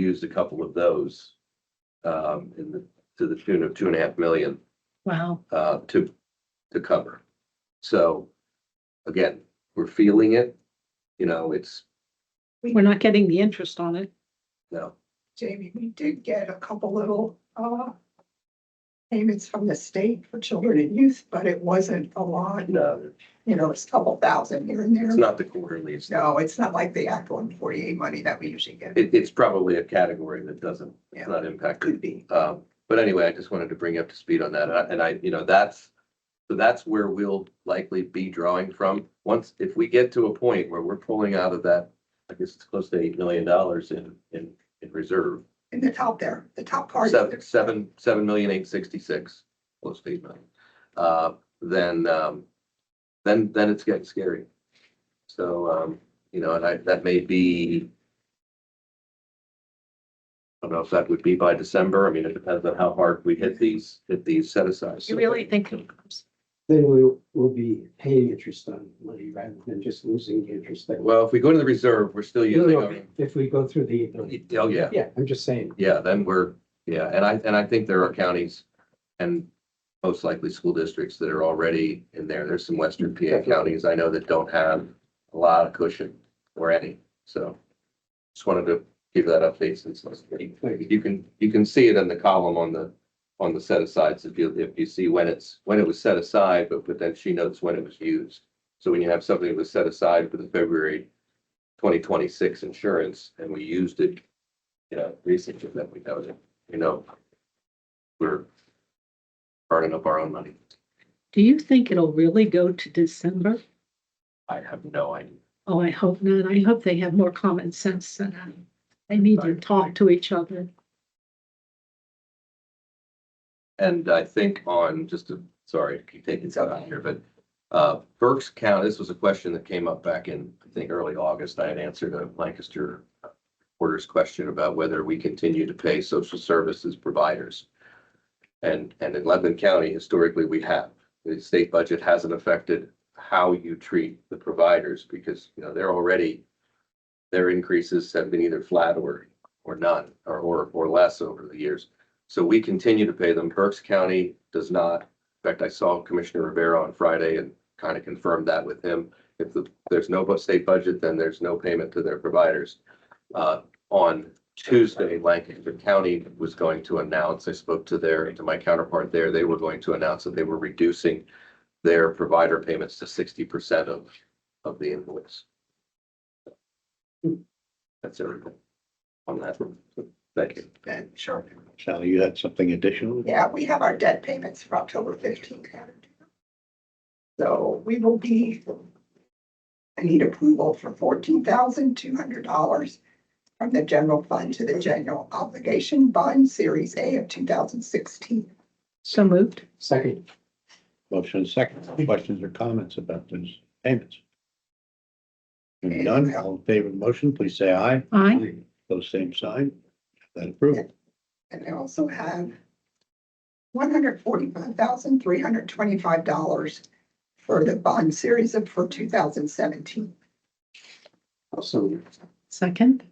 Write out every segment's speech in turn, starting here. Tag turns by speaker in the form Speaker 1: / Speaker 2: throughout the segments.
Speaker 1: used a couple of those um, in the, to the tune of two and a half million
Speaker 2: Wow,
Speaker 1: uh, to, to cover. So again, we're feeling it, you know, it's,
Speaker 2: we're not getting the interest on it.
Speaker 1: no,
Speaker 3: Jamie, we did get a couple little, uh, payments from the state for children and youth, but it wasn't a lot,
Speaker 1: no,
Speaker 3: you know, it's a couple thousand here and
Speaker 1: it's
Speaker 3: there.
Speaker 1: not the quarterly. It's,
Speaker 3: No, it's not like the Act one forty-eight money that we usually get. It
Speaker 1: it, it's probably a category that doesn't, it's not impacted.
Speaker 3: could be.
Speaker 1: Um, but anyway, I just wanted to bring you up to speed on that. And I- And I, you know, that's, so that's where we'll likely be drawing from. Once, if we get to a point where we're pulling out of that, I guess it's close to eight million dollars in, in, in reserve.
Speaker 3: In the top there, the top part.
Speaker 1: Seven, seven, seven million eight sixty-six, close to eight million. Uh, then, um, then, then it's getting scary. So, um, you know, and I, that may be. I don't know if that would be by December. I mean, it depends on how hard we hit these, hit these set asides.
Speaker 2: You really think, it comes-
Speaker 4: Then we will be paying interest on money rather than just losing the interest. that-
Speaker 1: Well, if we go to the reserve, we're still
Speaker 4: No,
Speaker 1: using.
Speaker 4: no,
Speaker 1: our-
Speaker 4: If we go through the.
Speaker 1: Oh, yeah.
Speaker 4: Yeah, I'm just saying,
Speaker 1: Yeah, then we're, yeah, and I, and I think there are counties and most likely school districts that are already in there. There's some western PA counties I know that don't have a lot of cushion or any, so. Just wanted to give that update since last week. You can, you can see it in the column on the, on the set asides if you, if you see when it's, when it was set aside, but, but then she notes when it was used. So when you have something that was set aside for the February twenty twenty-six insurance and we used it you know, research that we know, you know, we're burning up our own money.
Speaker 2: do you think it'll really go to December?
Speaker 1: I have no idea.
Speaker 2: Oh, I hope not. I hope they have more common sense than I. They need to talk to each other.
Speaker 1: And I think on, just to, sorry, to keep taking stuff out here, but uh, Berks County, this was a question that came up back in, I think, early August. I had answered a Lancaster reporter's question about whether we continue to pay social services providers. And, and in Lebanon County, historically, we have. The state budget hasn't affected how you treat the providers because, you know, they're already, their increases have been either flat or, or none, or, or, or less over the years. So we continue to pay them. Berks County does not. In fact, I saw Commissioner Rivera on Friday and kind of confirmed that with him. If the- there's no bu- state budget, then there's no payment to their providers. Uh, On Tuesday, Lancaster County was going to announce, I spoke to their, to my counterpart there, they were going to announce that they were reducing their provider payments to sixty percent of, of the invoice. That's everything on that. Thank you.
Speaker 3: Then, sure.
Speaker 5: Sally, you had something additional?
Speaker 3: Yeah, we have our debt payments for October fifteenth. So we will be, I need approval for fourteen thousand two hundred dollars from the general fund to the general obligation bond series A of two thousand sixteen.
Speaker 2: So moved.
Speaker 4: second,
Speaker 5: Motion second. Questions or comments about those payments? Hearing none, all in favor of the motion, please say aye.
Speaker 2: Aye.
Speaker 5: Those same sign. That approved.
Speaker 3: And I also have one hundred forty-five thousand three hundred twenty-five dollars for the bond series of, for two thousand seventeen.
Speaker 4: also,
Speaker 2: Second.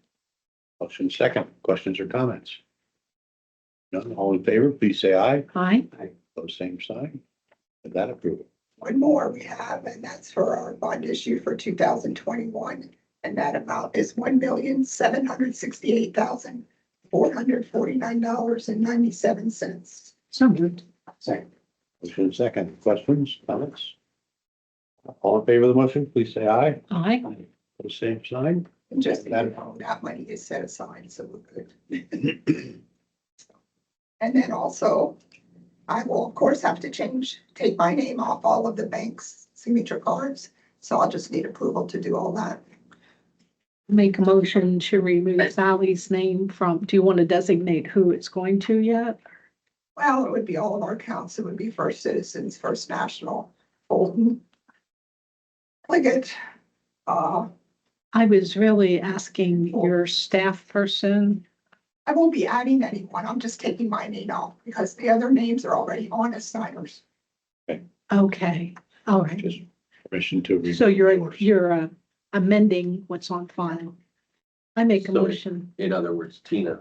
Speaker 5: Motion second. Questions or comments? None, all in favor, please say aye.
Speaker 2: Aye.
Speaker 5: Those same sign. That approved.
Speaker 3: One more we have, and that's for our bond issue for two thousand twenty-one. And that amount is one million, seven hundred sixty-eight thousand, four hundred forty-nine dollars and ninety-seven cents.
Speaker 2: So moved.
Speaker 4: second,
Speaker 5: Motion second. Questions, comments? All in favor of the motion, please say aye.
Speaker 2: Aye.
Speaker 5: Those same sign.
Speaker 3: And just, so you
Speaker 5: That-
Speaker 3: know, that money is set aside, so we're good. And then also, I will of course have to change, take my name off all of the bank's signature cards. So I'll just need approval to do all that.
Speaker 2: Make a motion to remove Sally's name from, do you want to designate who it's going to yet?
Speaker 3: Well, it would be all of our accounts. It would be First Citizens, First National, Bolton. Pliggett, uh,
Speaker 2: I was really asking your staff person.
Speaker 3: I won't be adding anyone. I'm just taking my name off because the other names are already on as signers.
Speaker 2: Okay, all right.
Speaker 5: Just permission to. remove
Speaker 2: So you're,
Speaker 5: yours.
Speaker 2: you're uh, amending what's on file. I make a
Speaker 1: So-
Speaker 2: motion.
Speaker 1: In other words, Tina